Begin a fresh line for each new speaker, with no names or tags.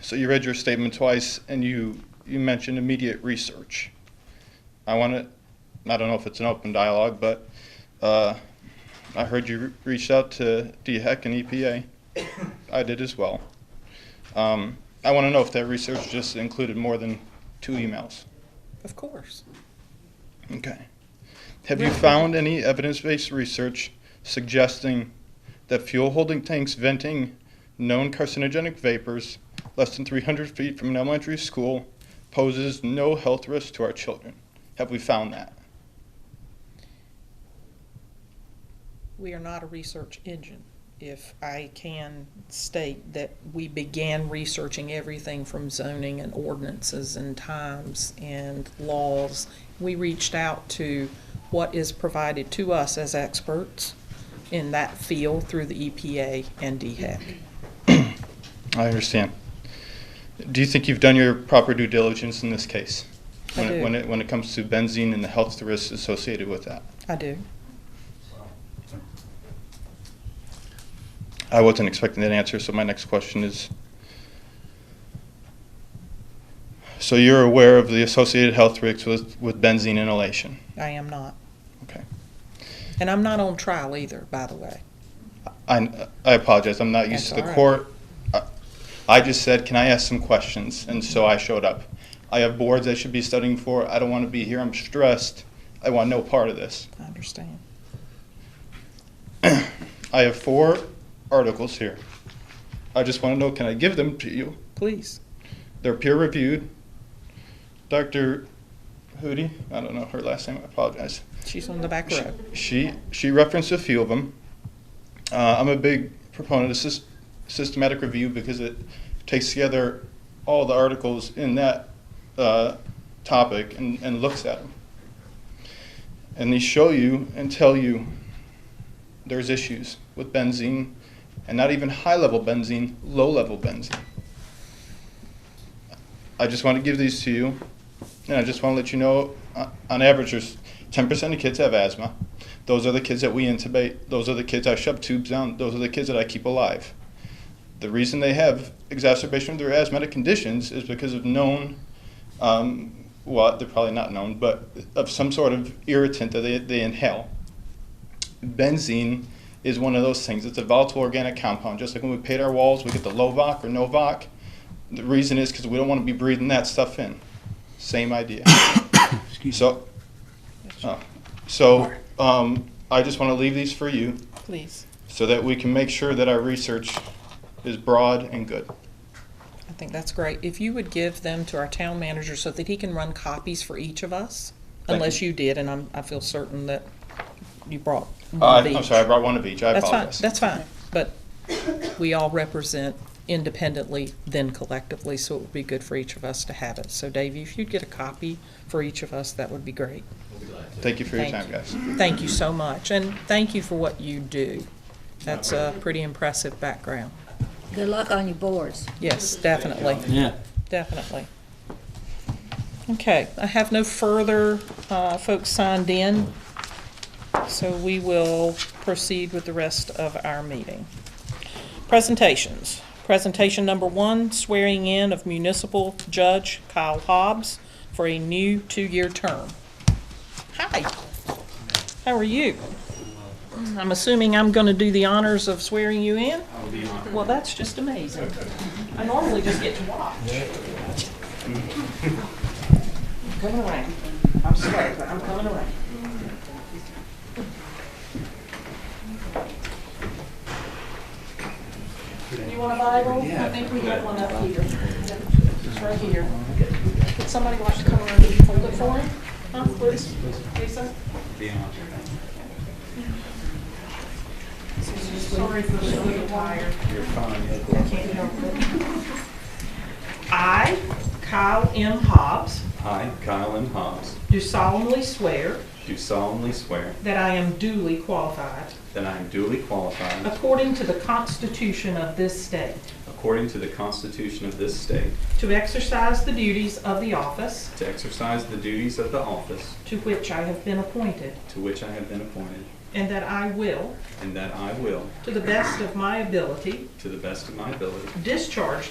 So you read your statement twice, and you, you mentioned immediate research. I want to, I don't know if it's an open dialogue, but uh, I heard you re- reached out to DHEC and EPA. I did as well. Um, I want to know if that research just included more than two emails.
Of course.
Okay. Have you found any evidence-based research suggesting that fuel holding tanks venting known carcinogenic vapors less than 300 feet from an elementary school poses no health risk to our children? Have we found that?
We are not a research engine. If I can state that we began researching everything from zoning and ordinances and times and laws, we reached out to what is provided to us as experts in that field through the EPA and E DHEC.
I understand. Do you think you've done your proper due diligence in this case?
I
when, It,
do.
when, it, when it comes to benzene and the health risks associated with that?
I do.
I wasn't expecting that answer, so my next question is, so you're aware of the associated health risks with, with benzene inhalation?
I am not.
Okay.
And I'm not on trial either, by the way.
I, I apologize, I'm not used
That's
to the
all right.
court. I- I just said, can I ask some questions? And so I showed up. I have boards I should be studying for, I don't want to be here, I'm stressed, I want no part of this.
I understand.
I have four articles here. I just want to know, can I give them to you?
Please.
They're peer reviewed. Dr. Hootie, I don't know her last name, I apologize.
She's on the back
She,
row.
she, she referenced a few of them. Uh, I'm a big proponent of sys- systematic review because it takes together all the articles in that uh, topic and, and looks at them. And they show you and tell you there's issues with benzene, and not even high level benzene, low level benzene. I just want to give these to you, and I just want to let you know, uh, on average, there's 10% of kids have asthma. Those are the kids that we intubate. Those are the kids I shove tubes down. Those are the kids that I keep alive. The reason they have exacerbation of their asthmatic conditions is because of known, um, well, they're probably not known, but of some sort of irritant that they, they inhale. Benzene is one of those things. It's a volatile organic compound. Just like when we paint our walls, we get the Lovoc or Novoc. The reason is because we don't want to be breathing that stuff in. Same idea. so, oh, so um, I just want to leave these for you
Please.
so that we can make sure that our research is broad and good.
I think that's great. If you would give them to our town manager so that he can run copies for each of us,
Thank
unless
you.
you did, and I'm, I feel certain that you brought
Uh,
one of
I'm
each.
sorry, I brought one of each. I
That's fine,
apologize.
that's fine, but we all represent independently, then collectively, so it would be good for each of us to have it. So Davey, if you'd get a copy for each of us, that would be great.
Thank you for your
Thank
time,
you.
guys.
Thank you so much, and thank you for what you do. That's a pretty impressive background.
Good luck on your boards.
Yes, definitely.
Yeah.
Definitely. Okay, I have no further uh, folks signed in, so we will proceed with the rest of our meeting. Presentations. Presentation number one, swearing in of municipal judge Kyle Hobbs for a new two-year term. Hi, how are you? I'm assuming I'm going to do the honors of swearing you in? Well, that's just amazing. I normally just get to watch. I'm coming around. I'm sorry, but I'm coming around. You want a Bible? I think we got one up here. It's right here. Would somebody like to come around and hold it for him? Huh, please? Lisa? Sorry for the little tired. I, Kyle M. Hobbs,
I, Kyle M. Hobbs,
do solemnly swear
do solemnly swear
that I am duly qualified,
that I am duly qualified,
according to the Constitution of this state,
according to the Constitution of this state,
to exercise the duties of the office
to exercise the duties of the office
to which I have been appointed,
to which I have been appointed,
and that I will,
and that I will,
to the best of my ability,
to the best of my ability,
discharge